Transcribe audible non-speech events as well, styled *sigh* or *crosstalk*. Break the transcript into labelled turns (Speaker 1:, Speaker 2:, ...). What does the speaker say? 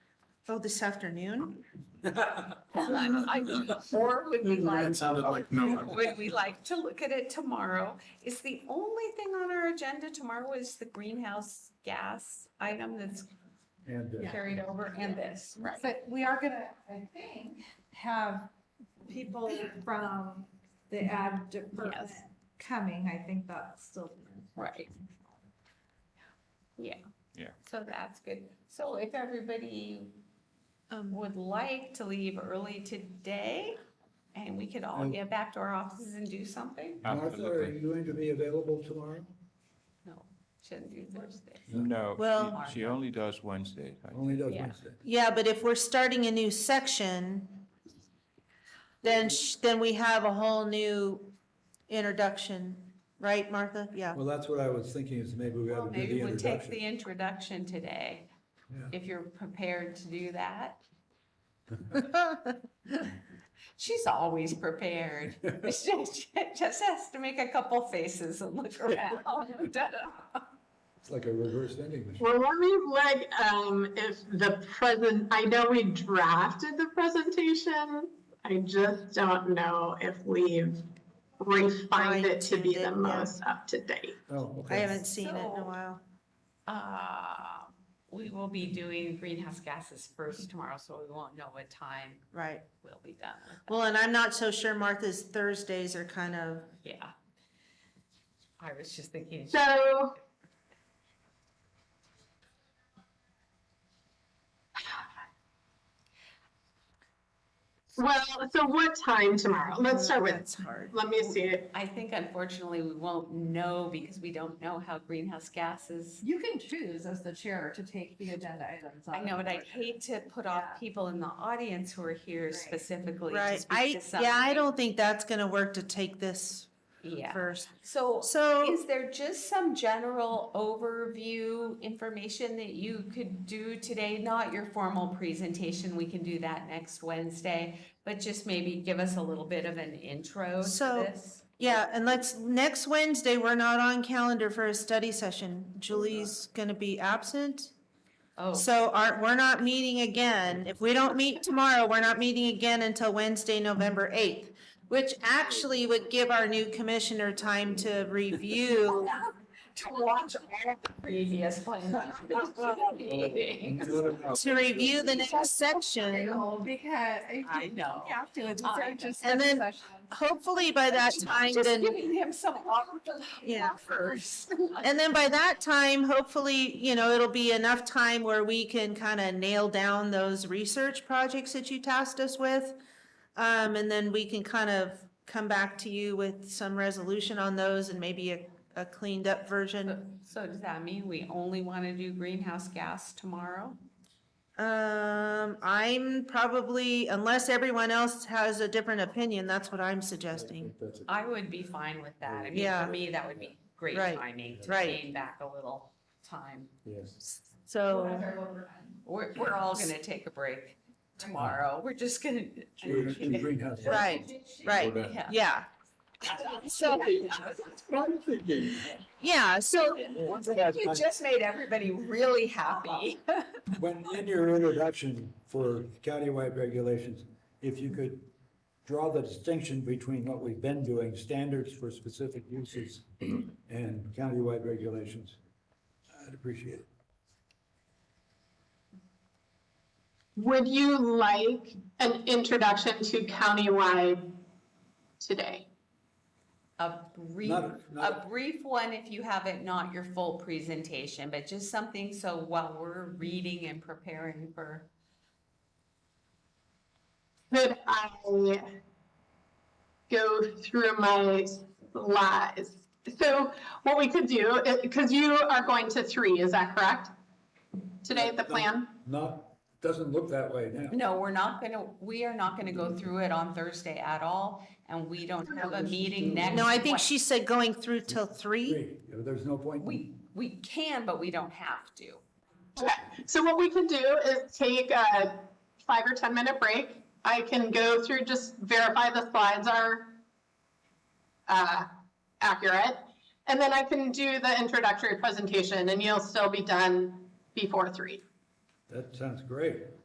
Speaker 1: Oh, this afternoon?
Speaker 2: I- Or would we like,
Speaker 3: That sounded like no.
Speaker 2: would we like to look at it tomorrow? Is the only thing on our agenda tomorrow is the greenhouse gas item that's
Speaker 3: And uh,
Speaker 2: carried over and this, right?
Speaker 4: But we are gonna, I think, have people from the ad department
Speaker 2: Yes.
Speaker 4: coming. I think that's still.
Speaker 2: Right. Yeah.
Speaker 5: Yeah.
Speaker 2: So that's good. So if everybody
Speaker 1: Um,
Speaker 2: would like to leave early today, and we could all
Speaker 6: Um,
Speaker 2: get back to our offices and do something?
Speaker 6: Martha, are you going to be available tomorrow?
Speaker 2: No, shouldn't do Thursday.
Speaker 5: No,
Speaker 1: Well-
Speaker 5: she, she only does Wednesdays. I think.
Speaker 6: Only does
Speaker 2: Yeah.
Speaker 6: Wednesday.
Speaker 1: Yeah, but if we're starting a new section, then, sh- then we have a whole new introduction, right, Martha? Yeah. *laughs*
Speaker 6: Well, that's what I was thinking, is maybe we ought to do the
Speaker 2: Maybe we take the
Speaker 6: introduction.
Speaker 2: introduction today,
Speaker 6: Yeah.
Speaker 2: if you're prepared to do that. She's always
Speaker 1: *laughs*
Speaker 2: prepared. She just has to make a couple faces and look
Speaker 1: *laughs*
Speaker 2: around.
Speaker 6: It's like a reverse vending machine.
Speaker 7: Well, let me look, um, if the present, I know we drafted the presentation. I just don't know if we've refined it to be
Speaker 1: Fine-tuned it, yeah.
Speaker 7: the most up to date.
Speaker 6: Oh,
Speaker 1: I
Speaker 6: okay.
Speaker 1: haven't seen it in a while.
Speaker 2: Uh, We will be doing greenhouse gases first tomorrow, so we won't know what time
Speaker 1: Right.
Speaker 2: we'll be done. with.
Speaker 1: Well, and I'm not so sure Martha's Thursdays are kind of,
Speaker 2: Yeah. I was just thinking.
Speaker 7: So. Well, so what time tomorrow? Let's start with,
Speaker 1: that's hard.
Speaker 7: let me see it.
Speaker 2: I think unfortunately we won't know because we don't know how greenhouse gases.
Speaker 4: You can choose as the chair to take the agenda items.
Speaker 2: I know, but I'd hate to put off people in the audience who are here
Speaker 4: Right.
Speaker 2: specifically to
Speaker 1: Right.
Speaker 2: speak
Speaker 1: I,
Speaker 2: to something.
Speaker 1: yeah, I don't think that's going to work to take this
Speaker 2: Yeah.
Speaker 1: first.
Speaker 2: So
Speaker 1: So
Speaker 2: is there just some general overview information that you could do today? Not your formal presentation, we can do that next Wednesday, but just maybe give us a little bit of an intro to
Speaker 1: So-
Speaker 2: this.
Speaker 1: Yeah, and let's, next Wednesday, we're not on calendar for a study session. Julie's gonna be absent.
Speaker 2: Oh,
Speaker 1: So are, we're not meeting again. If we don't meet tomorrow, we're not meeting again until Wednesday, November eighth, which actually would give our new commissioner time to review.
Speaker 2: to watch all the previous
Speaker 1: *laughs*
Speaker 2: plans.
Speaker 6: Not a problem.
Speaker 1: To review the next section.
Speaker 4: Because you
Speaker 2: I know.
Speaker 4: have to, it's
Speaker 2: I know.
Speaker 4: just.
Speaker 1: And then- Hopefully by that time, then.
Speaker 2: giving him some
Speaker 1: Yeah.
Speaker 2: offers.
Speaker 1: And then by that time, hopefully, you know, it'll be enough time where we can kind of nail down those research projects that you tasked us with. Um, and then we can kind of come back to you with some resolution on those and maybe a, a cleaned up version.
Speaker 2: So does that mean we only want to do greenhouse gas tomorrow?
Speaker 1: Um, I'm probably, unless everyone else has a different opinion, that's what I'm suggesting.
Speaker 6: think that's it.
Speaker 2: I would be fine with that. I mean,
Speaker 1: Yeah.
Speaker 2: for me, that would be great
Speaker 1: Right,
Speaker 2: timing to
Speaker 1: right.
Speaker 2: gain back a little time.
Speaker 6: Yes.
Speaker 1: So,
Speaker 2: We're, we're all going to take a break tomorrow. We're just going *laughs*
Speaker 6: We're gonna do
Speaker 2: to.
Speaker 6: greenhouse.
Speaker 1: right, right,
Speaker 2: Yeah.
Speaker 1: yeah. So, yeah, so
Speaker 2: You just made everybody really happy.
Speaker 6: When, in your introduction for countywide regulations, if you could draw the distinction between what we've been doing, standards for specific uses and countywide regulations, I'd appreciate it.
Speaker 7: Would you like an introduction to countywide today?
Speaker 2: A brief,
Speaker 6: Not-
Speaker 2: a
Speaker 6: not-
Speaker 2: brief one if you have it, not your full presentation, but just something so while we're reading and preparing for.
Speaker 7: Could I go through my slides? So what we could do, because you are going to three, is that correct? Today, the plan?
Speaker 6: Not, doesn't look that way now.
Speaker 2: No, we're not gonna, we are not gonna go through it on Thursday at all, and we don't have a meeting next.
Speaker 1: No, I think
Speaker 2: Wed-
Speaker 1: she said going through till three.
Speaker 6: Three, there's no point. in-
Speaker 2: We, we can, but we don't have to.
Speaker 7: Okay, so what we can do is take a five or 10 minute break. I can go through, just verify the slides are uh, accurate. And then I can do the introductory presentation and you'll still be done before three.
Speaker 6: That sounds great.